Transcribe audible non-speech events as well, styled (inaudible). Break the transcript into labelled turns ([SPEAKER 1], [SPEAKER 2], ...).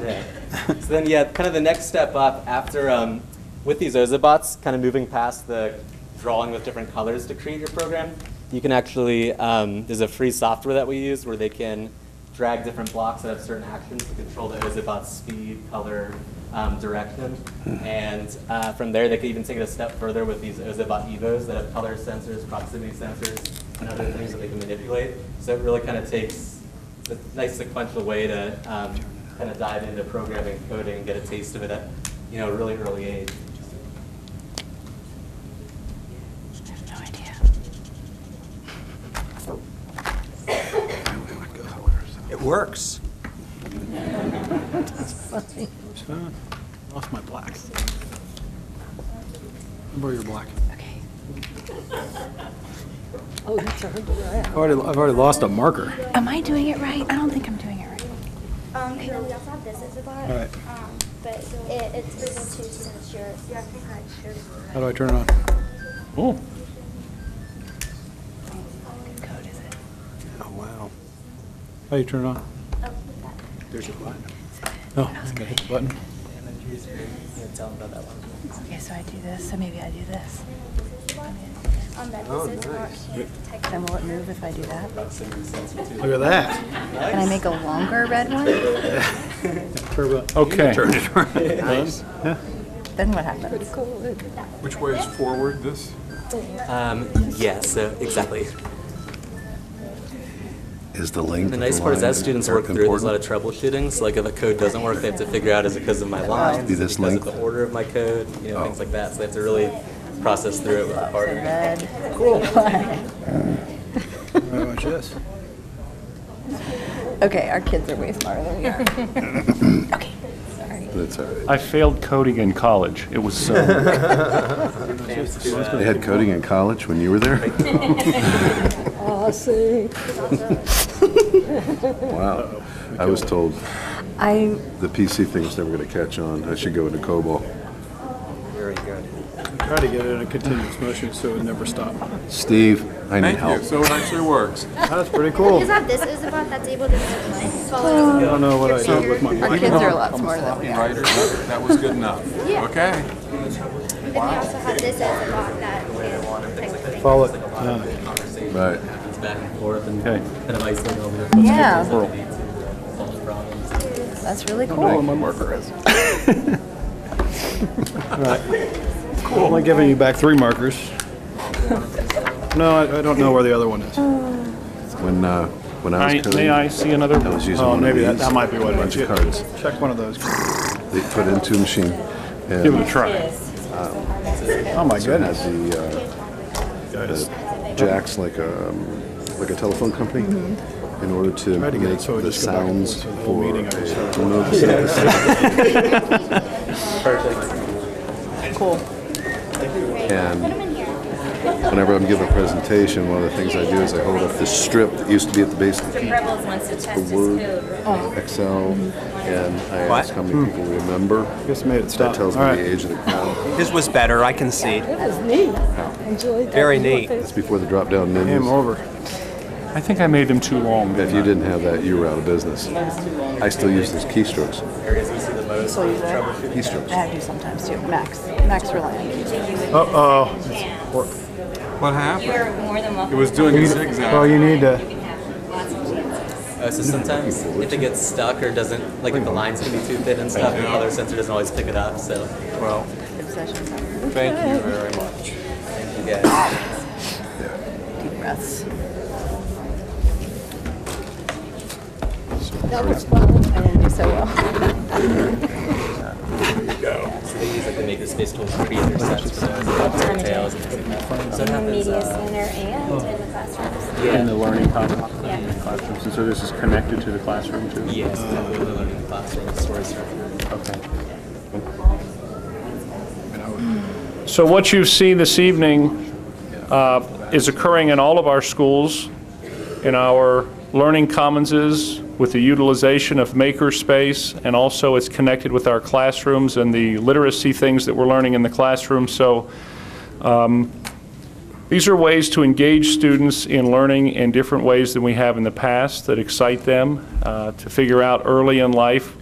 [SPEAKER 1] Yeah. So then, yeah, kind of the next step up after, um, with these Ozabots, kind of moving past the drawing with different colors to create your program, you can actually, um, there's a free software that we use where they can drag different blocks that have certain actions to control the Ozobot's speed, color, um, direction. And uh, from there, they can even take it a step further with these Ozobot Evos that have color sensors, proximity sensors, and other things that they can manipulate. So it really kind of takes a nice sequential way to um, kind of dive into programming, coding, and get a taste of it at you know a really early age.
[SPEAKER 2] I have no idea.
[SPEAKER 3] It works.
[SPEAKER 4] Lost my black. Borrow your black.
[SPEAKER 2] Okay. Oh, that's a
[SPEAKER 4] I've already, I've already lost a marker.
[SPEAKER 2] Am I doing it right? I don't think I'm doing it right.
[SPEAKER 5] Um, and then we also have this as a bot.
[SPEAKER 4] Alright.
[SPEAKER 5] Um, but it, it's for you to since you're, you have to hide your.
[SPEAKER 4] How do I turn it on? Oh.
[SPEAKER 2] What code is it?
[SPEAKER 3] Oh, wow.
[SPEAKER 4] How do you turn it on?
[SPEAKER 5] Oh, with that.
[SPEAKER 3] There's a button.
[SPEAKER 4] Oh, I gotta hit the button.
[SPEAKER 1] And then you just tell them about that one.
[SPEAKER 2] Okay, so I do this, so maybe I do this.
[SPEAKER 5] Um, that
[SPEAKER 3] Oh,
[SPEAKER 5] this is
[SPEAKER 3] nice.
[SPEAKER 5] not can't detect.
[SPEAKER 2] Then will it move if I do that?
[SPEAKER 1] Proximity
[SPEAKER 4] (laughs)
[SPEAKER 1] sensor too.
[SPEAKER 4] Look at that.
[SPEAKER 2] Can I
[SPEAKER 1] (laughs)
[SPEAKER 2] make a longer red one?
[SPEAKER 4] Turbo. Okay.
[SPEAKER 3] Turn
[SPEAKER 4] (laughs)
[SPEAKER 3] it on. Nice.
[SPEAKER 2] Then what happens?
[SPEAKER 6] Which way is forward, this?
[SPEAKER 1] Um, yeah, so exactly.
[SPEAKER 7] Is the link.
[SPEAKER 1] The nice part is as students work through, there's a lot of troubleshooting. So like if a code doesn't work, they have to figure out is it because of my lines,
[SPEAKER 7] Do
[SPEAKER 1] is it
[SPEAKER 7] this
[SPEAKER 1] because of
[SPEAKER 7] link?
[SPEAKER 1] the order of my code, you know, things like that. So they have to really process through it with the partner.
[SPEAKER 2] Red.
[SPEAKER 4] Right, watch this.
[SPEAKER 2] (laughs) Okay, our kids are way smarter than we are.
[SPEAKER 3] (laughs)
[SPEAKER 2] Okay, sorry.
[SPEAKER 7] That's all right.
[SPEAKER 8] I failed coding in college. It was so.
[SPEAKER 7] They had coding in college when you were there?
[SPEAKER 2] Awesome.
[SPEAKER 7] Wow. I was told
[SPEAKER 2] I,
[SPEAKER 7] the PC thing was never going to catch on. I should go into COBOL.
[SPEAKER 1] Very good.
[SPEAKER 4] Try to get it in a continuous motion so it would never stop.
[SPEAKER 7] Steve, I need
[SPEAKER 6] Thank you,
[SPEAKER 7] help.
[SPEAKER 6] so it actually works.
[SPEAKER 4] That's pretty cool.
[SPEAKER 5] You have this as a bot that's able to follow.
[SPEAKER 4] I don't know what I did with my
[SPEAKER 2] our
[SPEAKER 4] black.
[SPEAKER 2] kids are a lot smarter than we
[SPEAKER 6] Floppy
[SPEAKER 2] are.
[SPEAKER 6] writer, that was good enough.
[SPEAKER 5] Yeah.
[SPEAKER 6] Okay.
[SPEAKER 5] And we also have this as a bot that can detect things.
[SPEAKER 4] Follow it. Uh,
[SPEAKER 7] Right.
[SPEAKER 1] It's back and forth and
[SPEAKER 8] Okay.
[SPEAKER 1] kind of isolating all the
[SPEAKER 2] Yeah.
[SPEAKER 1] different things that they need to solve problems.
[SPEAKER 2] That's really
[SPEAKER 4] Follow
[SPEAKER 2] cool.
[SPEAKER 4] my marker (laughs) is. Alright. Cool. I'm only giving you back three markers. No, I, I don't know where the other one is.
[SPEAKER 7] When, uh, when I
[SPEAKER 8] I,
[SPEAKER 7] was
[SPEAKER 8] may I
[SPEAKER 7] coding,
[SPEAKER 8] see another?
[SPEAKER 7] I was using
[SPEAKER 4] Oh,
[SPEAKER 7] one of
[SPEAKER 4] maybe that,
[SPEAKER 7] these.
[SPEAKER 4] that might be what it
[SPEAKER 7] Bunch
[SPEAKER 4] is.
[SPEAKER 7] of cards.
[SPEAKER 4] Check one of those.
[SPEAKER 7] They put into a machine.
[SPEAKER 8] Give it
[SPEAKER 7] And um,
[SPEAKER 8] a try.
[SPEAKER 4] Oh my
[SPEAKER 7] it
[SPEAKER 4] goodness.
[SPEAKER 7] has the, uh, jacks like a, um, like a telephone company.
[SPEAKER 4] Mm-hmm.
[SPEAKER 7] In order to
[SPEAKER 4] Try to get it
[SPEAKER 7] make
[SPEAKER 4] so it
[SPEAKER 7] the
[SPEAKER 4] just go back and
[SPEAKER 7] sounds
[SPEAKER 4] forth for the whole
[SPEAKER 7] for
[SPEAKER 4] meeting, I was
[SPEAKER 7] a
[SPEAKER 4] sorry.
[SPEAKER 7] remote service.
[SPEAKER 2] Cool.
[SPEAKER 7] And whenever I'm giving a presentation, one of the things I do is I hold up this strip that used to be at the base of the key,
[SPEAKER 9] Rebels wants to test his
[SPEAKER 7] Word.
[SPEAKER 9] code, right?
[SPEAKER 7] Excel, and I ask how many people remember.
[SPEAKER 4] Just made it
[SPEAKER 7] That
[SPEAKER 4] stop.
[SPEAKER 7] tells me
[SPEAKER 4] Alright.
[SPEAKER 7] the age of the crowd.
[SPEAKER 3] His was better, I can see.
[SPEAKER 10] It was neat. Enjoyed that.
[SPEAKER 3] Very neat.
[SPEAKER 7] That's before the drop-down
[SPEAKER 4] Game
[SPEAKER 7] menus.
[SPEAKER 4] over.
[SPEAKER 8] I think I made them too long.
[SPEAKER 7] If you didn't have that, you were out of business. I still use those keystrokes.
[SPEAKER 1] Areas we see the most
[SPEAKER 2] So you there? I
[SPEAKER 7] Keystrokes.
[SPEAKER 2] have to sometimes too. Max, Max Reliant.
[SPEAKER 4] Uh-oh.
[SPEAKER 6] What happened?
[SPEAKER 9] You're more than welcome.
[SPEAKER 6] It was doing a
[SPEAKER 4] Well,
[SPEAKER 6] zigzag.
[SPEAKER 4] you need to,
[SPEAKER 9] You can have lots of chances.
[SPEAKER 1] Uh, so sometimes if it gets stuck or doesn't, like if the lines can be too thin and stuff, the other sensor doesn't always pick it up. So
[SPEAKER 6] Well,
[SPEAKER 2] Obsession.
[SPEAKER 6] thank you very much.
[SPEAKER 1] thank you guys.
[SPEAKER 2] Deep breaths.
[SPEAKER 7] So,
[SPEAKER 2] That was fun. I didn't do so well. (laughs)
[SPEAKER 1] So they use like the makerspace tool to create their sets for those that have tails and things like that. So it happens.
[SPEAKER 5] Media
[SPEAKER 1] Uh,
[SPEAKER 5] center and in the classrooms.
[SPEAKER 8] In the learning classrooms. classrooms. And so this is connected to the classroom too?
[SPEAKER 1] yes, definitely the learning classroom stories. are-
[SPEAKER 8] Okay. So what you've seen this evening uh, is occurring in all of our schools, in our learning commonses, with the utilization of makerspace, and also it's connected with our classrooms and the literacy things that we're learning in the classroom. So um, these are ways to engage students in learning in different ways than we have in the past that excite them, uh, to figure out early in life